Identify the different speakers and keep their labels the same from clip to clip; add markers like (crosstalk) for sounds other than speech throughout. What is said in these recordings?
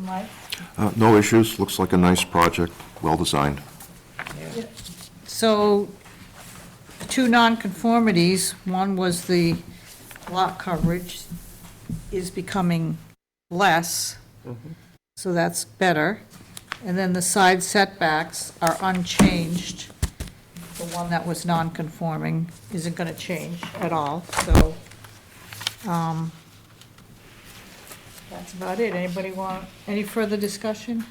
Speaker 1: Mike?
Speaker 2: Uh, No issues, looks like a nice project, well-designed.
Speaker 3: So, two nonconformities, one was the lot coverage is becoming less, so that's better. And then the side setbacks are unchanged. The one that was nonconforming isn't going to change at all, so, um, that's about it. Anybody want, any further discussion?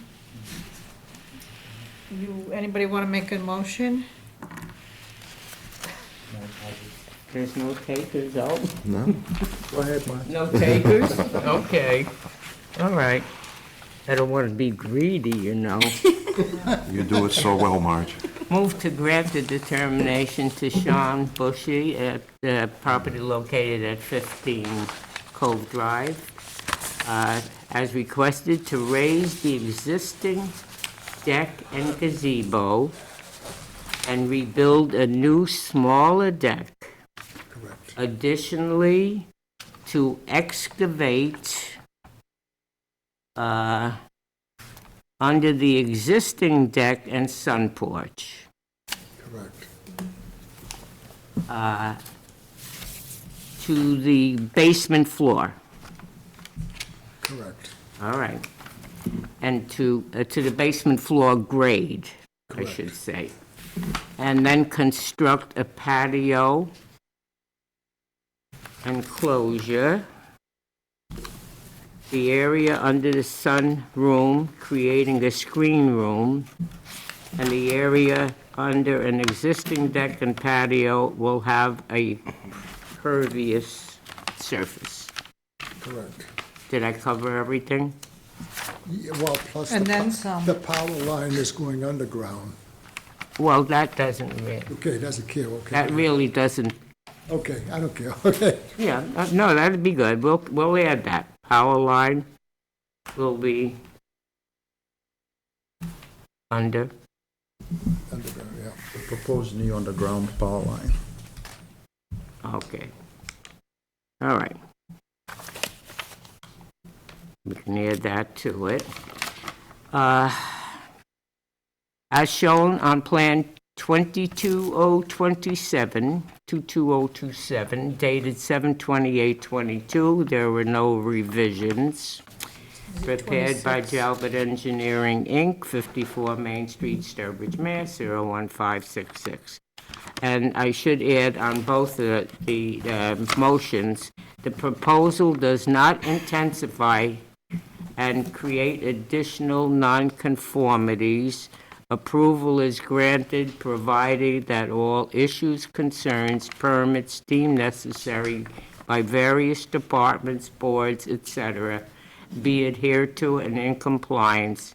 Speaker 3: You, anybody want to make a motion?
Speaker 4: There's no takers, oh.
Speaker 2: No?
Speaker 5: Go ahead, Mike.
Speaker 4: No takers? (laughs) Okay, all right. I don't want to be greedy, you know.
Speaker 2: You do it so well, Marge.
Speaker 4: Move to grant the determination to Sean Bushy at the property located at 15 Cove Drive, uh, as requested to raise the existing deck and gazebo and rebuild a new smaller deck. Additionally, to excavate uh, under the existing deck and sun porch.
Speaker 5: Correct.
Speaker 4: uh, to the basement floor.
Speaker 5: Correct.
Speaker 4: All right. And to, uh, to the basement floor grade, I should say. And then construct a patio enclosure. The area under the sun room, creating a screen room. And the area under an existing deck and patio will have a pervious surface.
Speaker 5: Correct.
Speaker 4: Did I cover everything?
Speaker 5: Yeah, Well, plus the
Speaker 3: And then
Speaker 5: po-
Speaker 3: some.
Speaker 5: the power line is going underground.
Speaker 4: Well, that doesn't really,
Speaker 5: Okay, doesn't care, okay.
Speaker 4: that really doesn't,
Speaker 5: Okay, I don't care, (laughs) okay.
Speaker 4: yeah, uh, no, that'd be good. We'll, we'll add that. Power line will be under,
Speaker 5: Underground, yeah.
Speaker 6: Proposed new underground power line.
Speaker 4: okay. All right. We can add that to it. Uh, As shown on Plan 22027, 22027, dated 7/28/22, there were no revisions. Prepared by Talbot Engineering, Inc., 54 Main Street, Sturbridge, Mass. 01566. And I should add on both the- the uh, motions, the proposal does not intensify and create additional nonconformities. Approval is granted provided that all issues, concerns, permits deemed necessary by various departments, boards, etc., be adhered to and in compliance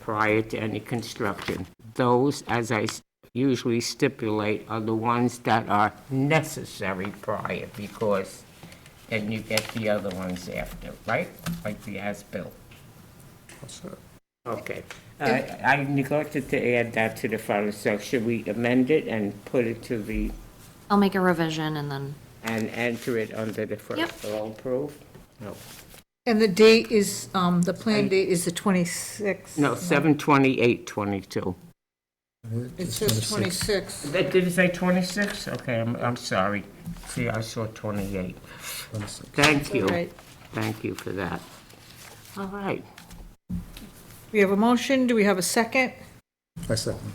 Speaker 4: prior to any construction. Those, as I s- usually stipulate, are the ones that are necessary prior, because then you get the other ones after, right? Like the as-built. Okay. Uh, I neglected to add that to the final, so should we amend it and put it to the,
Speaker 7: I'll make a revision and then,
Speaker 4: and enter it under the
Speaker 7: Yep.
Speaker 4: first all proof? No.
Speaker 3: And the date is, um, the planned date is the 26th.
Speaker 4: No, 7/28/22.
Speaker 3: It says 26.
Speaker 4: That- Did it say 26? Okay, I'm, I'm sorry. See, I saw 28. Thank
Speaker 3: All
Speaker 4: you.
Speaker 3: right.
Speaker 4: Thank you for that. All right.
Speaker 3: We have a motion, do we have a second?
Speaker 5: I second.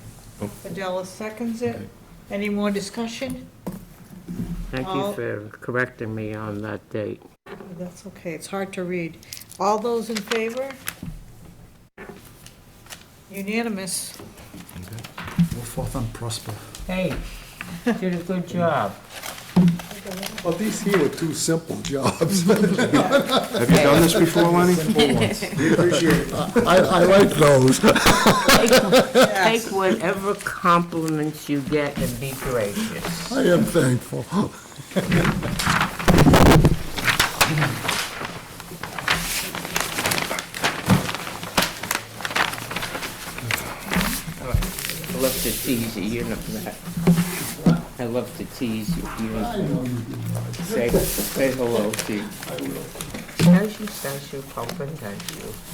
Speaker 3: Adela seconds it. Any more discussion?
Speaker 4: Thank
Speaker 3: All-
Speaker 4: you for correcting me on that date.
Speaker 3: That's okay, it's hard to read. All those in favor? Unanimous.
Speaker 6: Go forth and prosper.
Speaker 4: Hey, you did a good job.
Speaker 5: Well, these here were two simple (laughs) jobs.
Speaker 2: Have you done this before, Lenny?
Speaker 5: I, I like those.
Speaker 4: Take whatever compliments you get and be gracious.
Speaker 5: I am thankful.
Speaker 4: I love to tease you, you know that. I love to tease you. you know. Say, say hello to you. I will. Snowshoe, snowshoe, pumpkin, thank you.